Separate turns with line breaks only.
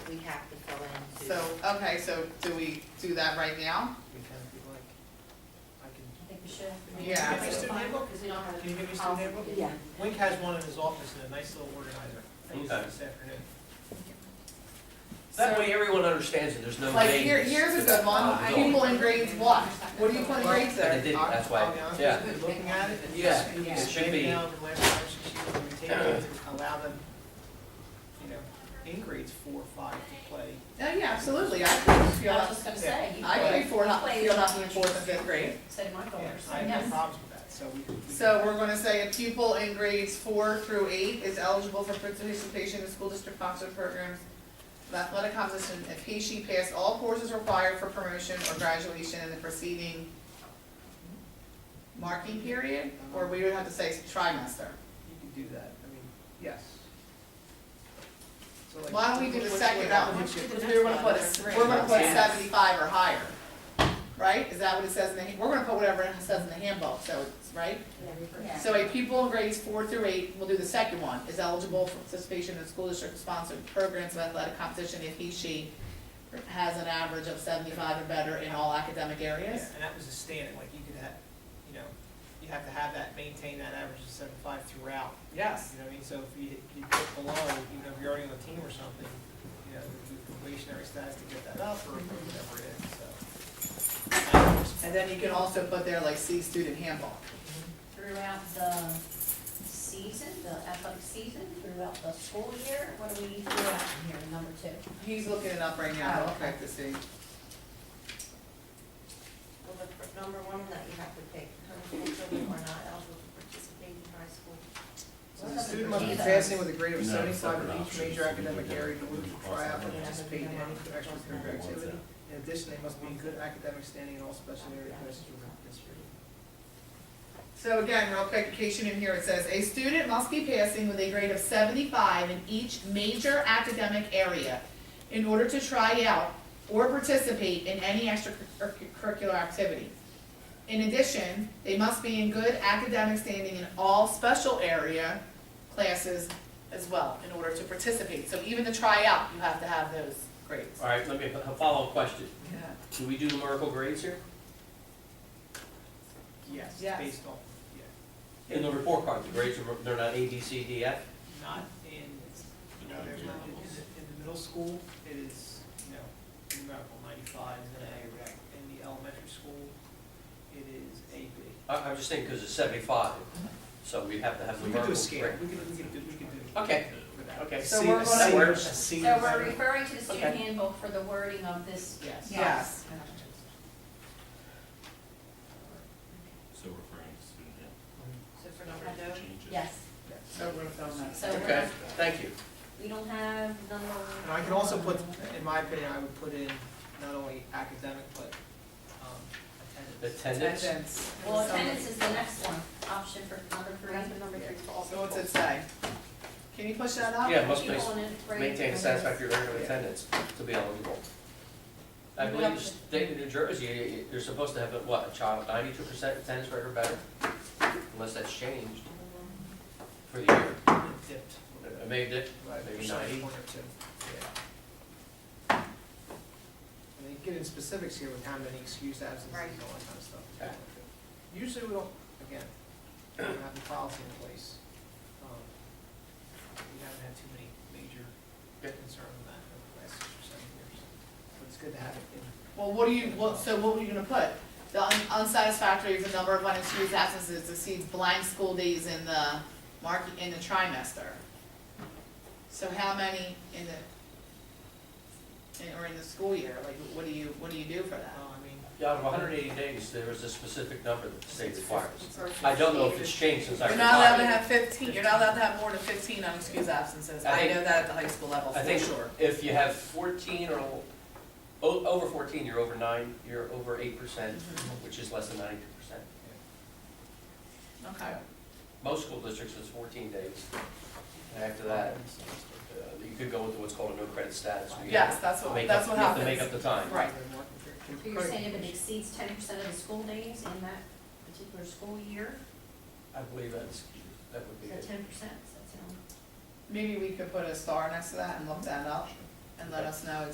we have to fill in to.
So, okay, so do we do that right now?
Because we like, I can,
I think we should.
Yeah.
Can you give me a student handbook?
Because we don't have.
Can you give me a student handbook?
Yeah.
Wink has one in his office and a nice little organizer. I used it
Okay.
this afternoon.
That
So-
way everyone understands it, there's no
Like,
names.
here, here's a good
Uh,
one,
it's all-
people in grades what? What do you put in grades
But they
there?
didn't, that's why,
I'll be honest with
yeah.
you, Looking at it, and
Yeah,
just, you
it
just
should be-
maybe now the last five, six years, when we take it to allow them, you know, in grades four, five to play.
Oh, yeah, absolutely, I played
I
field,
was just gonna say, you
I played
played,
four,
played-
field hockey in fourth and fifth grade.
said my
Yeah,
daughter, so
I have
yes.
no problems with that, so we. we-
So we're gonna say a pupil in grades four through eight is eligible for participation in school district sponsored programs of athletic competition if he, she passed all courses required for promotion or graduation in the preceding marking period, or we would have to say trimester.
You can do that, I mean, yes. So like-
Why don't we do the
What- what
second one?
happens if you-
Because we're gonna put, a- we're gonna put
Yes.
seventy-five or higher, right? Is that what it says in the, we're gonna put whatever it says in the handbook, so it's, right?
Yeah.
So a pupil in grades four through eight, we'll do the second one, is eligible for participation in school district sponsored programs of athletic competition if he, she has an average of seventy-five or better in all academic
Yeah,
areas?
and that was a standard, like you could have, you know, you have to have that, maintain that average of seventy-five throughout.
Yes.
You know what I mean, so if you, you dip below, even if you're already on the team or something, you know, the probationary status to get that up or whatever it is, so.
And then you can also put there like C student handbook.
Throughout the season, the athletic season, throughout the school year, what do we throw out in here, number two?
He's looking it up right now, I'll check to see.
Well, the fir- number one that you have to pick, homeschool children are not eligible to participate in high school.
Uh, So the student must be passing with a grade of seventy-five in each major academic area to move to try out and participate in any extracurricular activity. In addition, they must be in good academic standing in all special area classes where they participate.
So again, real quick, in case you didn't hear, it says, a student must be passing with a grade of seventy-five in each major academic area in order to try out or participate in any extracurricular activity. In addition, they must be in good academic standing in all special area classes as well in order to participate. So even to try out, you have to have those grades.
All right, let me, a follow-up question.
Yeah.
Do we do numerical grades here?
Yes,
Yes.
based on, yeah.
In the report card, the grades are, they're not A, B, C, D, F?
not in, you know, there's not, in the, in the middle school, it is, you know, numerical ninety-five is an A, right? In the elementary school, it is AB.
I, I'm just thinking because it's seventy-five, so we have to have
We could
numerical.
do a
grade.
scale, we could, we could do, we could do.
Okay,
for that.
okay.
So we're
That
gonna-
works.
C.
So we're referring to the student
Okay.
handbook for the wording of this.
Yes.
Yes.
So referring to student health,
So for number two,
changes.
Yes,
So we're gonna film that.
so we're
Okay,
not-
thank you.
we don't have number.
And I can also put, in my opinion, I would put in not only academic, but, um, attendance.
Attendance?
Attendance.
Well, attendance is the next one, option for number three.
that's number three for all
So what's it
people.
say? Can you push that up?
Yeah, must
People
be,
in it, grade
maintain a
numbers.
satisfactory record of
Yeah.
attendance to be eligible. I
You
believe
have
the
to-
state of New Jersey, you- you- you're supposed to have, what, a child ninety-two percent attendance record or better? Unless that's changed for the year.
It Dipped.
Uh, Maybe that,
Right,
Maybe
percentage
90.
Point or two, yeah. And they get in specifics here with how many excused absences
Right.
and all that kind of stuff.
Okay.
Usually we don't, again, we don't have the policy in place. Um, We haven't had too many major
Yeah.
concerns with that over the last six or seven years. But it's good to have it in.
Well, what do you, what, so what were you gonna put? The un- unsatisfactory is the number of unexcused absences exceeds blank school days in the mark, in the trimester. So how many in the, in, or in the school year, like, what do you, what do you do for that?
Well, I mean,
yeah, out of hundred and eighty days, there is a specific number that the state requires.
Or
I don't know if
15.
it's changed since I
You're not allowed to
retired.
have fifteen, you're not allowed to have more than fifteen unexcused absences,
I
I
think-
know that at the high school level,
I
for
think
sure.
if you have fourteen or, o- over fourteen, you're over nine, you're over eight percent,
Mm-hmm.
which is less than ninety-two percent.
Okay,
Most school districts is fourteen days. And after that, uh, you could go into what's called a no credit status. where you
yes,
have
that's
to
what,
make
that's
up-
what
You have to
happens.
make up the time.
Right.
So you're saying if it exceeds ten percent of the school days in that particular school year,
I believe that's, that would be
so
it.
ten percent, so that's.
Maybe we could put a star next to that and look that up and let us know